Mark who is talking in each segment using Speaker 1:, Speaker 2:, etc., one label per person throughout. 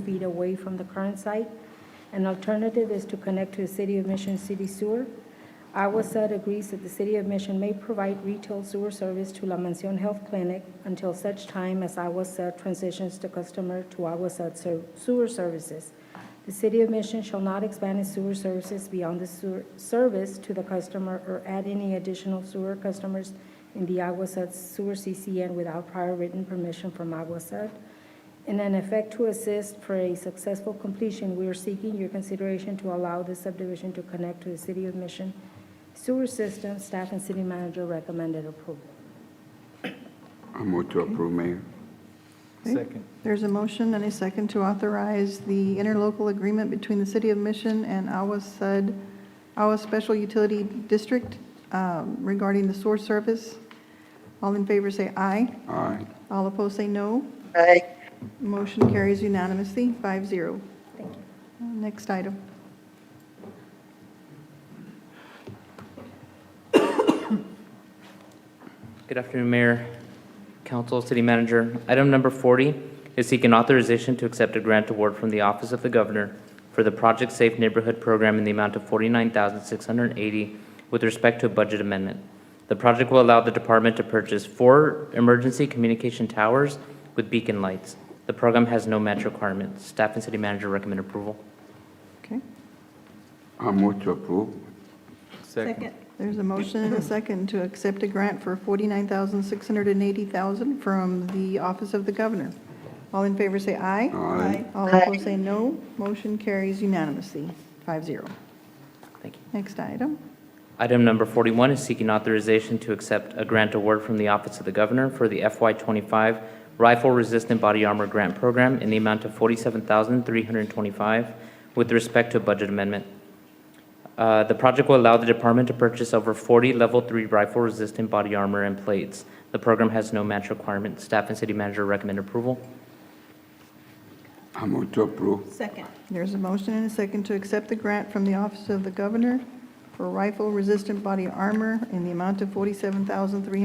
Speaker 1: feet away from the current site. An alternative is to connect to the City of Mission city sewer. IWASUD agrees that the City of Mission may provide retail sewer service to La Mansión Health Clinic until such time as IWASUD transitions the customer to IWASUD ser- sewer services. The City of Mission shall not expand its sewer services beyond the sewer service to the customer or add any additional sewer customers in the IWASUD sewer CCN without prior written permission from IWASUD. In an effect to assist for a successful completion, we are seeking your consideration to allow this subdivision to connect to the City of Mission sewer system. Staff and city manager recommended approval.
Speaker 2: I move to approve, Mayor.
Speaker 3: Okay.
Speaker 4: Second.
Speaker 3: There's a motion and a second to authorize the interlocal agreement between the City of Mission and Awa Sud, Awa Special Utility District um, regarding the source service. All in favor say aye.
Speaker 2: Aye.
Speaker 3: All opposed say no.
Speaker 5: Aye.
Speaker 3: Motion carries unanimously, five zero. Uh,
Speaker 1: Thank you.
Speaker 3: Next item.
Speaker 6: Good afternoon, Mayor, Council, City Manager. Item number 40 is seeking authorization to accept a grant award from the Office of the Governor for the Project Safe Neighborhood Program in the amount of $49,680 with respect to a budget amendment. The project will allow the department to purchase four emergency communication towers with beacon lights. The program has no match requirements. Staff and City Manager recommend approval.
Speaker 3: Okay.
Speaker 2: I move to approve.
Speaker 4: Second.
Speaker 3: There's a motion and a second to accept a grant for $49,680,000 from the Office of the Governor. All in favor say aye.
Speaker 2: Aye.
Speaker 3: All opposed say no. Motion carries unanimously, 5-0.
Speaker 6: Thank you.
Speaker 3: Next item.
Speaker 6: Item number 41 is seeking authorization to accept a grant award from the Office of the Governor for the FY25 Rifle-Resistant Body Armor Grant Program in the amount of $47,325 with respect to a budget amendment. Uh, The project will allow the department to purchase over 40 Level 3 rifle-resistant body armor and plates. The program has no match requirement. Staff and city manager recommend approval.
Speaker 2: I move to approve.
Speaker 3: There's a motion and a second to accept the grant from the Office of the Governor for rifle-resistant body armor in the amount of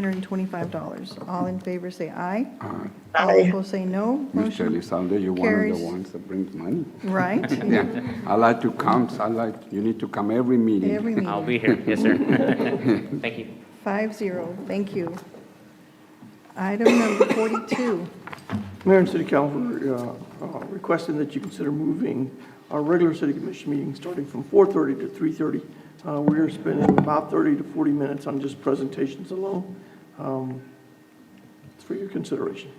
Speaker 3: $47,325. All in favor say aye.
Speaker 2: Aye.
Speaker 3: All opposed say no.
Speaker 2: Mr.
Speaker 3: Motion,
Speaker 2: Elizondo, you're one of
Speaker 3: carries.
Speaker 2: the ones that brings money.
Speaker 3: right?
Speaker 2: Yeah, I like to come, I like, you need to come every meeting.
Speaker 3: Every meeting.
Speaker 6: I'll be here. Yes, sir. Thank you.
Speaker 3: Five zero, thank you. Item number 42,
Speaker 7: Mayor and City Council uh, uh, requesting that you consider moving our regular city commission meeting starting from 4:30 to 3:30. Uh, We are spending about 30 to 40 minutes on just presentations alone. Um, It's for your consideration.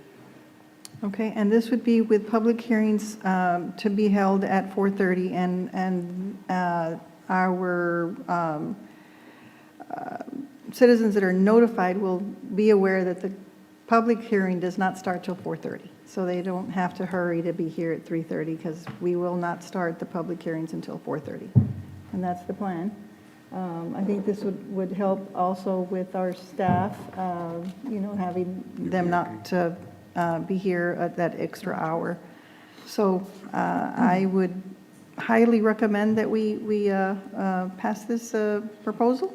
Speaker 3: okay, and this would be with public hearings um, to be held at 4:30, and, and uh, our um, uh, citizens that are notified will be aware that the public hearing does not start till 4:30, so they don't have to hurry to be here at 3:30, because we will not start the public hearings until 4:30. And that's the plan. Um, I think this would, would help also with our staff, uh, you know, having them not to uh, be here at that extra hour. So uh, I would highly recommend that we, we uh, uh, pass this uh, proposal.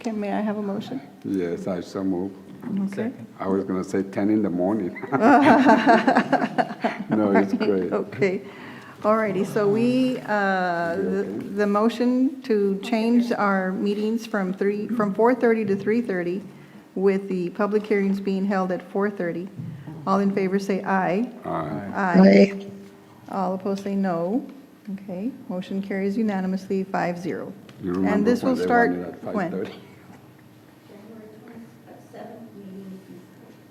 Speaker 3: Okay, may I have a motion?
Speaker 2: Yes, I so move.
Speaker 3: Okay.
Speaker 2: I was gonna say ten in the morning. No, it's Oh, great.
Speaker 3: Okay, all righty, so we, uh, the the motion to change our meetings from 3, from 4:30 to 3:30, with the public hearings being held at 4:30. All in favor say aye.
Speaker 2: Aye.
Speaker 5: Aye.
Speaker 3: All opposed say no. Okay, motion carries unanimously, 5-0.
Speaker 2: You
Speaker 3: And
Speaker 2: remember
Speaker 3: this will
Speaker 2: when they
Speaker 3: start
Speaker 2: wanted at
Speaker 3: when?
Speaker 2: 5:30?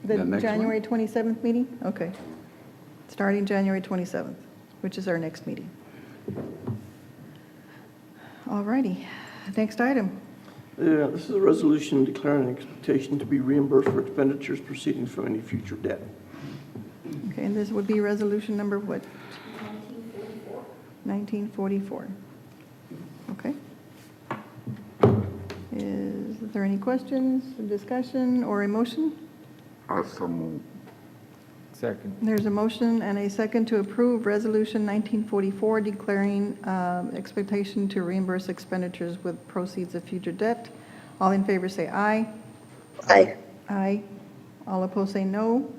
Speaker 2: The
Speaker 3: The
Speaker 2: next one?
Speaker 3: January 27th meeting? Okay. Starting January 27th, which is our next meeting. All righty, next item.
Speaker 7: Uh, This is a resolution declaring an expectation to be reimbursed for expenditures proceeding from any future debt.
Speaker 3: Okay, and this would be resolution number what? 1944. 1944. Okay. Is there any questions, discussion, or a motion?
Speaker 2: I so move.
Speaker 4: Second.
Speaker 3: There's a motion and a second to approve Resolution 1944 declaring um, expectation to reimburse expenditures with proceeds of future debt. All in favor say aye.
Speaker 5: Aye.
Speaker 3: Aye. All opposed say no.